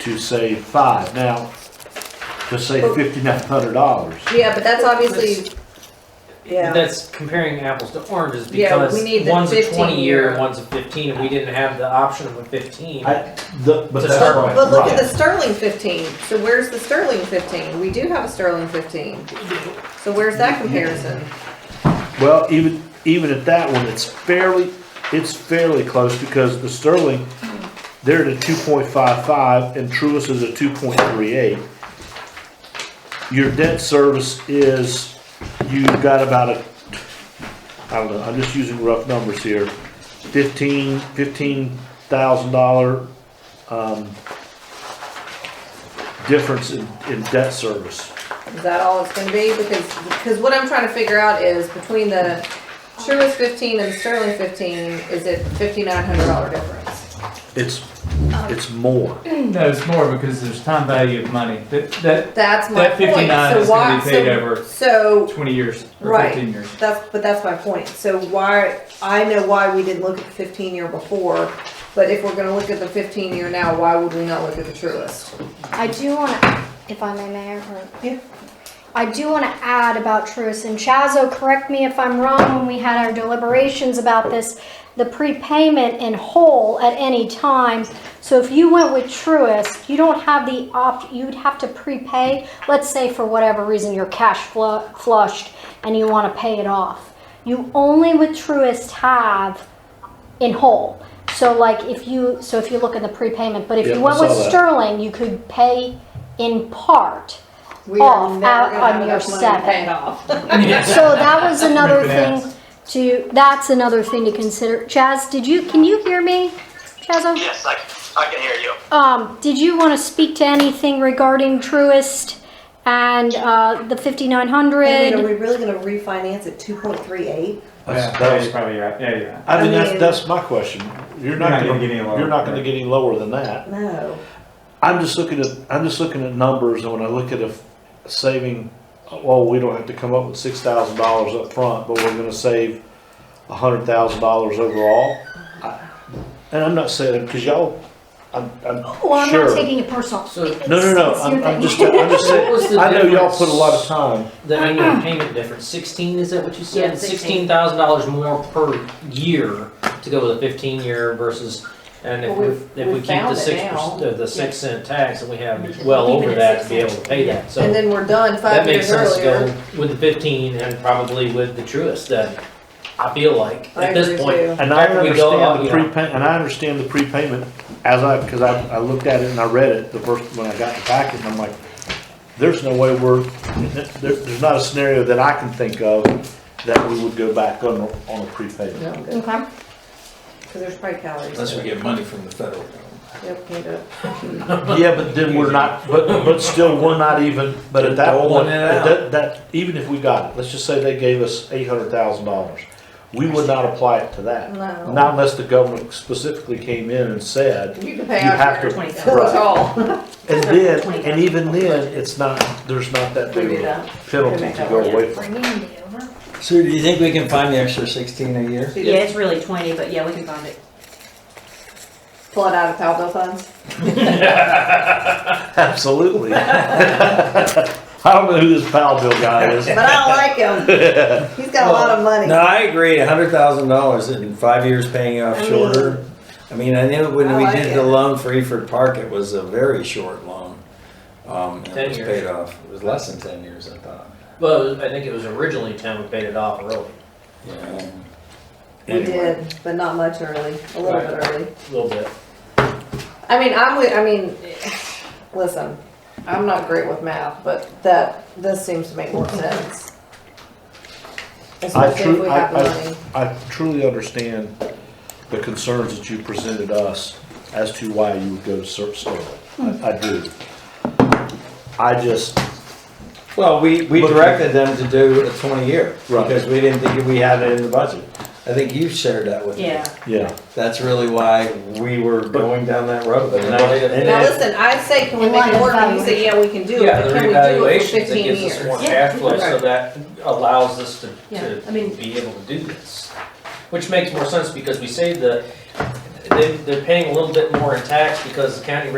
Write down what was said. to say five. Now, to say fifty-nine hundred dollars. Yeah, but that's obviously, yeah, That's comparing apples to oranges Yeah, because we need the one's a 20 15-year. year and one's a 15, and we didn't have the option of a 15. I- The, but To that's start right. with. but look at right. the Sterling fifteen, so where's the Sterling fifteen? We do have a Sterling fifteen, so where's that comparison? Well, even, even at that one, it's fairly, it's fairly close because the Sterling, they're at a two point five five and Truist is a two point three eight. Your debt service is, you've got about a, I don't know, I'm just using rough numbers here, fifteen, fifteen thousand dollar, um, difference in, in debt service. Is that all it's gonna be? Because, because what I'm trying to figure out is between the Truist fifteen and the Sterling fifteen, is it fifty-nine hundred dollar difference? It's, it's more. No, it's more because there's time value of money. That, that That's my That point. 59 So is gonna why- be paid so- over. So, 20 years or Right. 15 years. That's, but that's my point. So why, I know why we didn't look at the fifteen year before, but if we're gonna look at the fifteen year now, why would we not look at the Truist? I do want to, if I may, Mayor. or- Yeah. I do want to add about Truist and Chazo, correct me if I'm wrong, when we had our deliberations about this, the prepayment in whole at any time. So if you went with Truist, you don't have the opt, you'd have to prepay, let's say for whatever reason you're cash flu- flushed and you want to pay it off. You only with Truist have in whole. So like if you, so if you look at the prepayment, but if Yeah, you I went with saw that. Sterling, you could pay in part. We are Off, never out gonna on have your enough money to pay seven. it off. So that was another Refinance. thing to, that's another thing to consider. Chaz, did you, can you hear me? Chaz, Yes, I, I can hear you. um, did you want to speak to anything regarding Truist and, uh, the fifty-nine hundred? really gonna refinance at two point three eight? That's- yeah, that yeah, was- you're probably right. Yeah, you're right. I mean, I that's, mean- that's my question. You're not gonna, get any lower. you're not gonna get any lower than that. No. I'm just looking at, I'm just looking at numbers and when I look at a f- saving, well, we don't have to come up with six thousand dollars up front, but we're gonna save a hundred thousand dollars overall. I- And I'm not saying, cause y'all, I'm, I'm Well, I'm sure. not taking it personal. So- It's- No, no, no, it's I'm, your I'm thing. just, I'm just What was saying, the I know y'all difference? put a lot of time. the annual payment difference 16 is that what you said Yeah, 16. $16,000 more per year to go with a 15 year versus and if, Well, we we've- if we we've keep the found it six now. perc- the, the six cent tax and we have well over that to be able to pay that so And then we're done that five makes years sense to earlier. go with the 15 and probably with the truest then I feel like I at agree this point with And I There we go, understand the you know. prepayment, and I understand the prepayment as I, because I, I looked at it and I read it the first, when I got the packet, and I'm like, there's no way we're, there, there's not a scenario that I can think of that we would go back on, a- on a prepayment. No, I'm good, Okay. cause there's probably calories. Unless we get money from the federal government. Yep, can't do it. Yeah, but then we're not, but, but still, we're not even, but at that Doling point, it at out. that, that, even if we got it, let's just say they gave us eight hundred thousand dollars, we would not apply it to that. No. Not unless the government specifically came in and said, You can pay You out have your to- twenty thousand. right. all. And then, and even then, it's not, there's not that We big do of a that. penalty to go away from. Bring Andy over. Sue, do you think we can find the extra sixteen a year? Yeah, it's really twenty, but yeah, we can find it. Flood out of Palville funds. Absolutely. I don't know who this pal bill guy is. But I don't like him. He's got a lot of money. No, I agree, a hundred thousand dollars in five years paying off I shorter. I mean, I knew when I we like did the it. loan for Eford Park, it was a very short loan. Um, and 10 it was years. paid off, it was less than ten years, I thought. well I think it was originally 10 we paid it off early Yeah. We did, but not much early, a little bit early. a little bit I mean, I'm with, I mean, listen, I'm not great with math, but that, this seems to make more sense. I Especially if truly, we have the I, money. I, I truly understand the concerns that you presented us as to why you would go to Sur- Sterling. I, I do. I just, Well, we, we But- directed them to do a twenty year, Right. because we didn't think we had it in the budget. I think you shared that with me. Yeah. yeah, That's really why we were going down that road. And I- and Now, it- listen, I say, can we In make light it of work? And you say, yeah, we can do it, Yeah, but the can we do it for revaluations, that fifteen gives us more years? Yeah, cash flow, so right. that allows us to, Yeah, to I mean- be able to do this. Which makes more sense because we save the, they, they're paying a little bit more in tax because the county